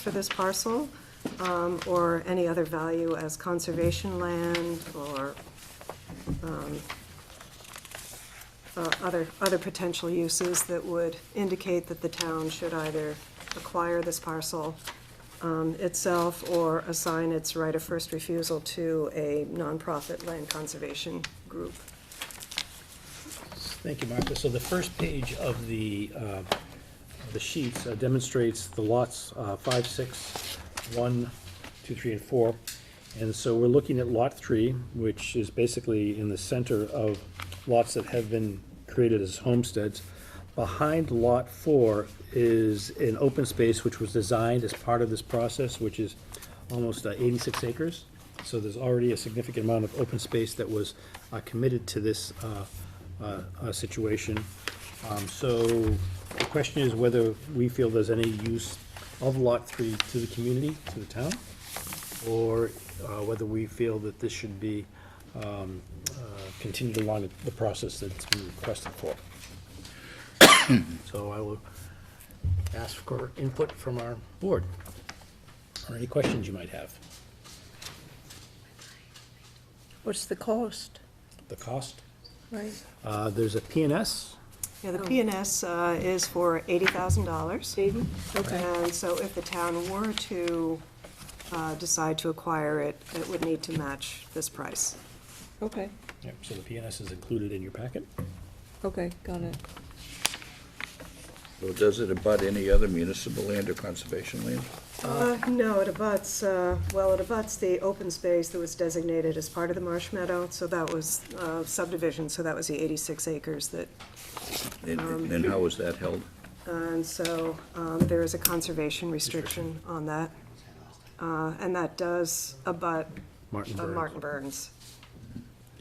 for this parcel, um, or any other value as conservation land or um, uh, other, other potential uses that would indicate that the town should either acquire this parcel um, itself or assign its right of first refusal to a nonprofit land conservation group. Thank you, Martha. So the first page of the, uh, the sheets uh, demonstrates the lots uh, five, six, one, two, three, and four. And so we're looking at lot three, which is basically in the center of lots that have been created as homesteads. Behind lot four is an open space which was designed as part of this process, which is almost uh, 86 acres. So there's already a significant amount of open space that was uh, committed to this uh, uh, uh, situation. Um, So the question is whether we feel there's any use of Lot 3 to the community, to the town, or uh, whether we feel that this should be um, uh, continued along the process that's been requested for. So I will ask for input from our board, or any questions you might have. What's the cost, The cost, right? uh, there's a PNS, Yeah, the PNS uh, is for $80,000. Eighty? Okay, And so if the town were to uh, decide to acquire it, it would need to match this price. okay, Yep, so the PNS is included in your packet. okay, got it. Well, does it abut any other municipal land or conservation land? Uh, No, it abuts, uh, well, it abuts the open space that was designated as part of the Marsh Meadow, so that was uh, subdivision, so that was the 86 acres that, And- Um, And how is that held? and so um, there is a conservation restriction on that. Uh, And that does abut Martin uh, Oh, Burns. Martin Burns,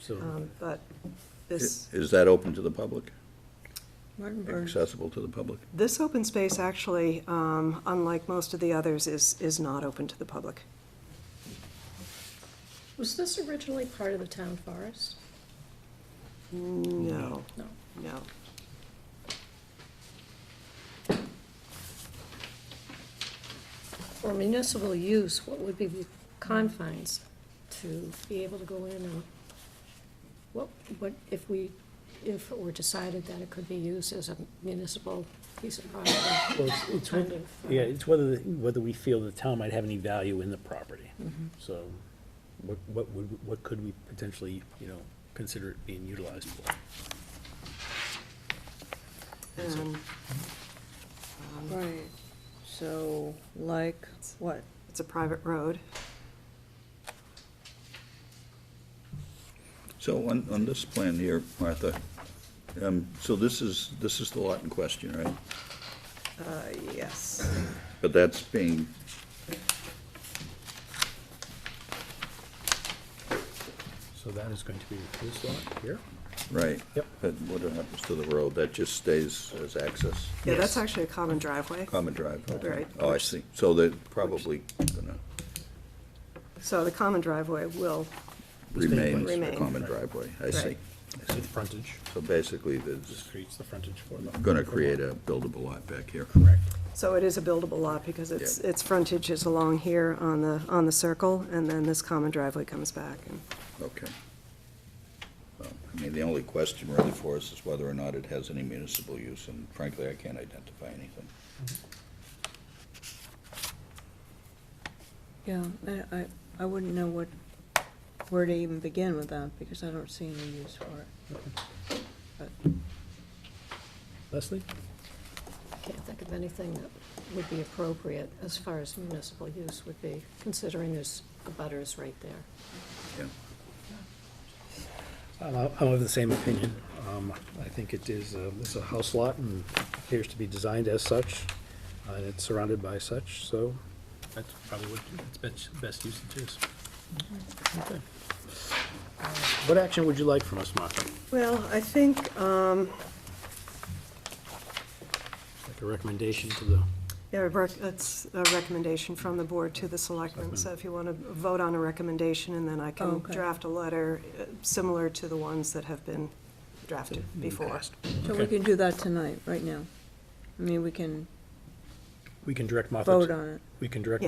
So, um, but Is this, is that open to the public, Martinburg, accessible to the public? this open space actually, um, unlike most of the others, is, is not open to the public. Was this originally part of the town forest? No, No. no. For municipal use, what would be the confines to be able to go in and, what, what, if we, if it were decided that it could be used as a municipal piece of property? well, it's- it's, kind whe- of, uh, yeah, it's whether, the- whether we feel the town might have any value in the property. Mm-hmm. So, what, what would, what could we potentially, you know, consider it being utilized for? And um, right, so like what? It's a private road. So on, on this plan here, Martha, um, so this is, this is the lot in question, right? Uh, yes. But that's being, So that is going to be this lot here? right? Yep. But what happens to the road? That just stays as access, Yeah, that's Yes. actually a common driveway. common drive? okay. Right. Oh, I see. So they're probably gonna So the common driveway will, remain as a Remain. common driveway. I see. Right. I see. With frontage, So basically, there's this creates the frontage for the. gonna create a buildable lot back here. Correct. so it is a buildable lot because it's, Yeah. its frontage is along here on the, on the circle, and then this common driveway comes back. and- Okay. Well, I mean, the only question really for us is whether or not it has any municipal use, and frankly, I can't identify anything. Yeah, I, I, I wouldn't know what, where to even begin with that, because I don't see any use for it. But, Leslie? Can't think of anything that would be appropriate as far as municipal use would be, considering there's a butters right there. Yeah. I'm I'm of the same opinion. Um, I think it is, uh, it's a house lot and appears to be designed as such, uh, and it's surrounded by such, so that's probably what its best, best usage is. Okay. Uh, What action would you like from us, Martha? Well, I think, um, Like a recommendation to the, yeah, rec- it's a recommendation from the board to the selectmen, so if you want to vote on a recommendation, and then I Oh, can okay. draft a letter uh, similar to the ones that have been drafted before. so we Okay. can do that tonight, right now. I mean, we can we can direct Martha. to- vote on it. We can direct Yeah.